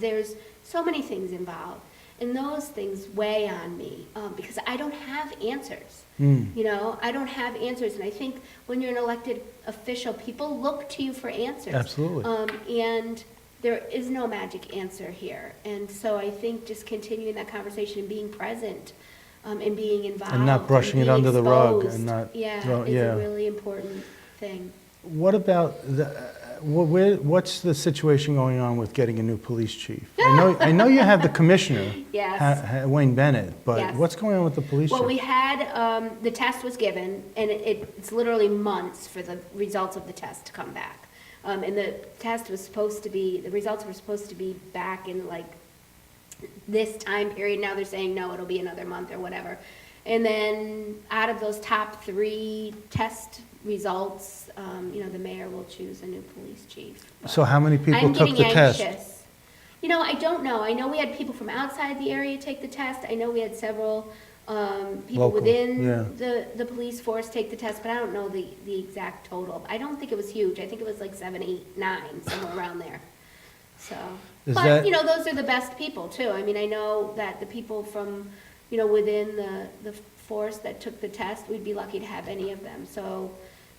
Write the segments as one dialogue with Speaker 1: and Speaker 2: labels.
Speaker 1: There's so many things involved, and those things weigh on me um, because I don't have answers.
Speaker 2: Hmm.
Speaker 1: You know, I don't have answers, and I think when you're an elected official, people look to you for answers.
Speaker 2: Absolutely.
Speaker 1: Um, and there is no magic answer here, and so I think just continuing that conversation and being present um, and being involved
Speaker 2: brushing it
Speaker 1: being
Speaker 2: under the rug and
Speaker 1: exposed,
Speaker 2: not
Speaker 1: yeah,
Speaker 2: throw-
Speaker 1: is
Speaker 2: yeah.
Speaker 1: a really important thing.
Speaker 2: What about the, uh, wh- where, what's the situation going on with getting a new police chief? I know, I know you have the commissioner,
Speaker 1: Yes.
Speaker 2: Ha- Ha- Wayne Bennett, but
Speaker 1: Yes.
Speaker 2: what's going on with the police
Speaker 1: Well, we
Speaker 2: chief?
Speaker 1: had, um, the test was given, and it, it's literally months for the results of the test to come back. Um, and the test was supposed to be, the results were supposed to be back in like this time period. Now they're saying, no, it'll be another month or whatever. And then out of those top three test results, um, you know, the mayor will choose a new police chief.
Speaker 2: So how many people
Speaker 1: I'm
Speaker 2: took
Speaker 1: getting
Speaker 2: the test?
Speaker 1: anxious. You know, I don't know. I know we had people from outside the area take the test. I know we had several um, people
Speaker 2: Local,
Speaker 1: within
Speaker 2: yeah.
Speaker 1: the, the police force take the test, but I don't know the, the exact total. I don't think it was huge. I think it was like seven, eight, nine, somewhere around there. So,
Speaker 2: Is
Speaker 1: but,
Speaker 2: that-
Speaker 1: you know, those are the best people too. I mean, I know that the people from, you know, within the, the force that took the test, we'd be lucky to have any of them. So,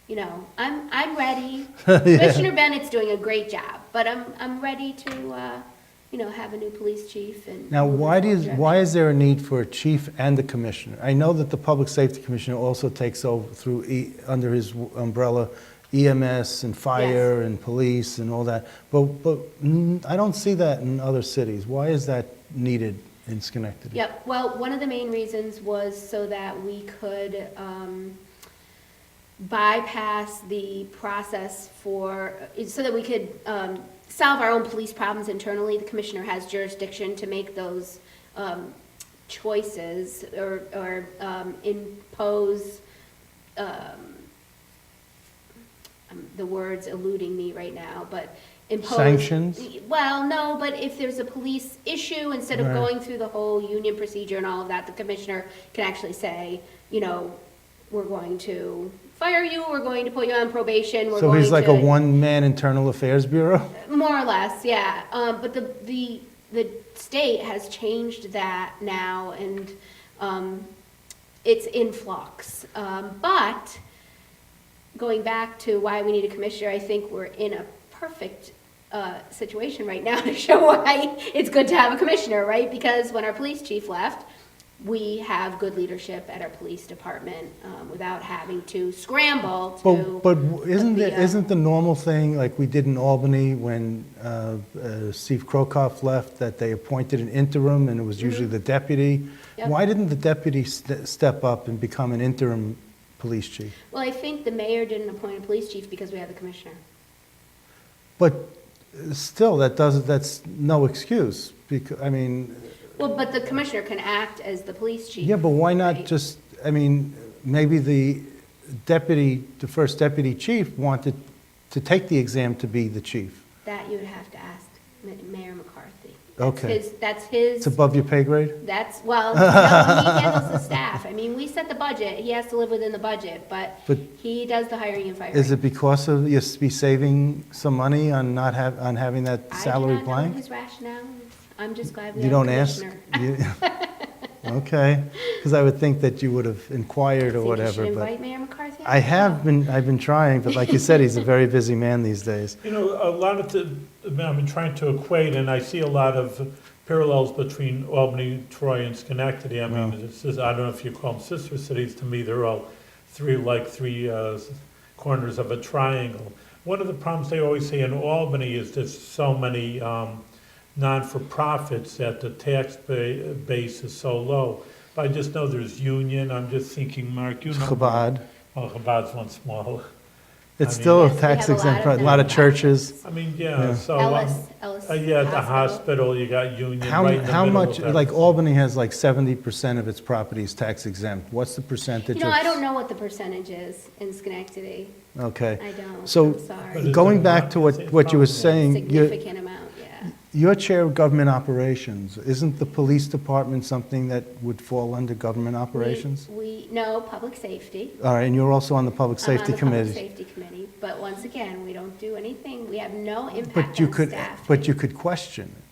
Speaker 1: you know, I'm, I'm ready. Commissioner Bennett's doing a great job, but I'm, I'm ready to, uh, you know, have a new police chief and.
Speaker 2: Now, why do, you-
Speaker 1: Yeah.
Speaker 2: why is there a need for a chief and a commissioner? I know that the public safety commissioner also takes over through, E- under his w- umbrella EMS and fire and police and all that, but, but mm, I don't see that in other cities. Why is that needed in Schenectady?
Speaker 1: Yep, well, one of the main reasons was so that we could um, bypass the process for, so that we could um, solve our own police problems internally. The commissioner has jurisdiction to make those um, choices or or um, impose, um, um, the word's eluding me right now, but impose.
Speaker 2: Sanctions?
Speaker 1: Well, no, but if there's a police issue, instead of
Speaker 2: Right.
Speaker 1: going through the whole union procedure and all of that, the commissioner can actually say, you know, we're going to fire you, we're going to put you on probation, we're
Speaker 2: So
Speaker 1: going to.
Speaker 2: he's like a one-man internal affairs bureau?
Speaker 1: More or less, yeah. Um, but the, the, the state has changed that now and, um, it's in flux. Um, but going back to why we need a commissioner, I think we're in a perfect uh, situation right now to show why it's good to have a commissioner, right? Because when our police chief left, we have good leadership at our police department um, without having to scramble to.
Speaker 2: But, but isn't,
Speaker 1: the,
Speaker 2: the-
Speaker 1: uh,
Speaker 2: isn't the normal thing, like we did in Albany when uh, uh, Steve Krokoff left, that they appointed an interim and it was usually the deputy?
Speaker 1: Mm-hmm. Yep.
Speaker 2: Why didn't the deputy ste- step up and become an interim police chief?
Speaker 1: Well, I think the mayor didn't appoint a police chief because we have the commissioner.
Speaker 2: But uh, still, that doesn't, that's no excuse, because, I mean,
Speaker 1: Well, but the commissioner can act as the police chief.
Speaker 2: yeah, but why not
Speaker 1: Right.
Speaker 2: just, I mean, maybe the deputy, the first deputy chief wanted to take the exam to be the chief.
Speaker 1: That you would have to ask Ma- Mayor McCarthy.
Speaker 2: Okay.
Speaker 1: His- That's his,
Speaker 2: It's above your pay grade?
Speaker 1: that's, well, no, he handles the staff. I mean, we set the budget, he has to live within the budget, but
Speaker 2: But-
Speaker 1: he does the hiring and
Speaker 2: Is
Speaker 1: firing.
Speaker 2: it because of, you be saving some money on not have, on having that
Speaker 1: I do
Speaker 2: salary
Speaker 1: not know
Speaker 2: blank?
Speaker 1: his rationale. I'm just glad we
Speaker 2: You
Speaker 1: have a
Speaker 2: don't ask?
Speaker 1: commissioner.
Speaker 2: You- Okay, because I would think that you would have inquired or
Speaker 1: Think you should
Speaker 2: whatever, but
Speaker 1: invite Mayor McCarthy?
Speaker 2: I have been, I've been trying, but like you said, he's a very busy man these days.
Speaker 3: You know, a lot of the, I mean, I've been trying to equate, and I see a lot of parallels between Albany, Troy, and Schenectady. I mean, this is, I don't know if you call them sister cities, to me, they're all three, like three uh, s- corners of a triangle. One of the problems they always say in Albany is there's so many um, non-for-profits that the tax ba- base is so low. But I just know there's Union, I'm just thinking, Mark, you know.
Speaker 2: Chabad,
Speaker 3: Well, Chabad's one smaller.
Speaker 2: it's
Speaker 3: I
Speaker 2: still
Speaker 1: mean-
Speaker 2: a
Speaker 1: Yes, we
Speaker 2: tax
Speaker 1: have a lot
Speaker 2: exempt,
Speaker 1: of
Speaker 2: pro- a lot of
Speaker 1: nonprofits.
Speaker 2: churches.
Speaker 3: I mean,
Speaker 2: Yeah.
Speaker 3: yeah, so. um,
Speaker 1: Ellis, Ellis.
Speaker 3: Uh, yeah, at the hospital, you got Union
Speaker 2: How,
Speaker 3: right in the
Speaker 2: how
Speaker 3: middle
Speaker 2: much,
Speaker 3: of that.
Speaker 2: like Albany has like seventy percent of its properties tax exempt, what's the percentage
Speaker 1: You know,
Speaker 2: of?
Speaker 1: I don't know what the percentage is in Schenectady.
Speaker 2: Okay.
Speaker 1: I don't,
Speaker 2: So,
Speaker 1: I'm
Speaker 3: But
Speaker 1: sorry.
Speaker 3: it's
Speaker 2: Going
Speaker 3: a
Speaker 2: back to what,
Speaker 3: lot-
Speaker 2: what you were
Speaker 3: it's probably
Speaker 2: saying, you
Speaker 1: Significant amount, yeah.
Speaker 2: Your chair of government operations, isn't the police department something that would fall under government
Speaker 1: We-
Speaker 2: operations?
Speaker 1: We, no, public safety.
Speaker 2: All right, and you're also on the public
Speaker 1: I'm on
Speaker 2: safety
Speaker 1: the Public
Speaker 2: committee.
Speaker 1: Safety Committee, but once again, we don't do anything, we have no impact
Speaker 2: But you
Speaker 1: on
Speaker 2: could,
Speaker 1: staff.
Speaker 2: but you could question it.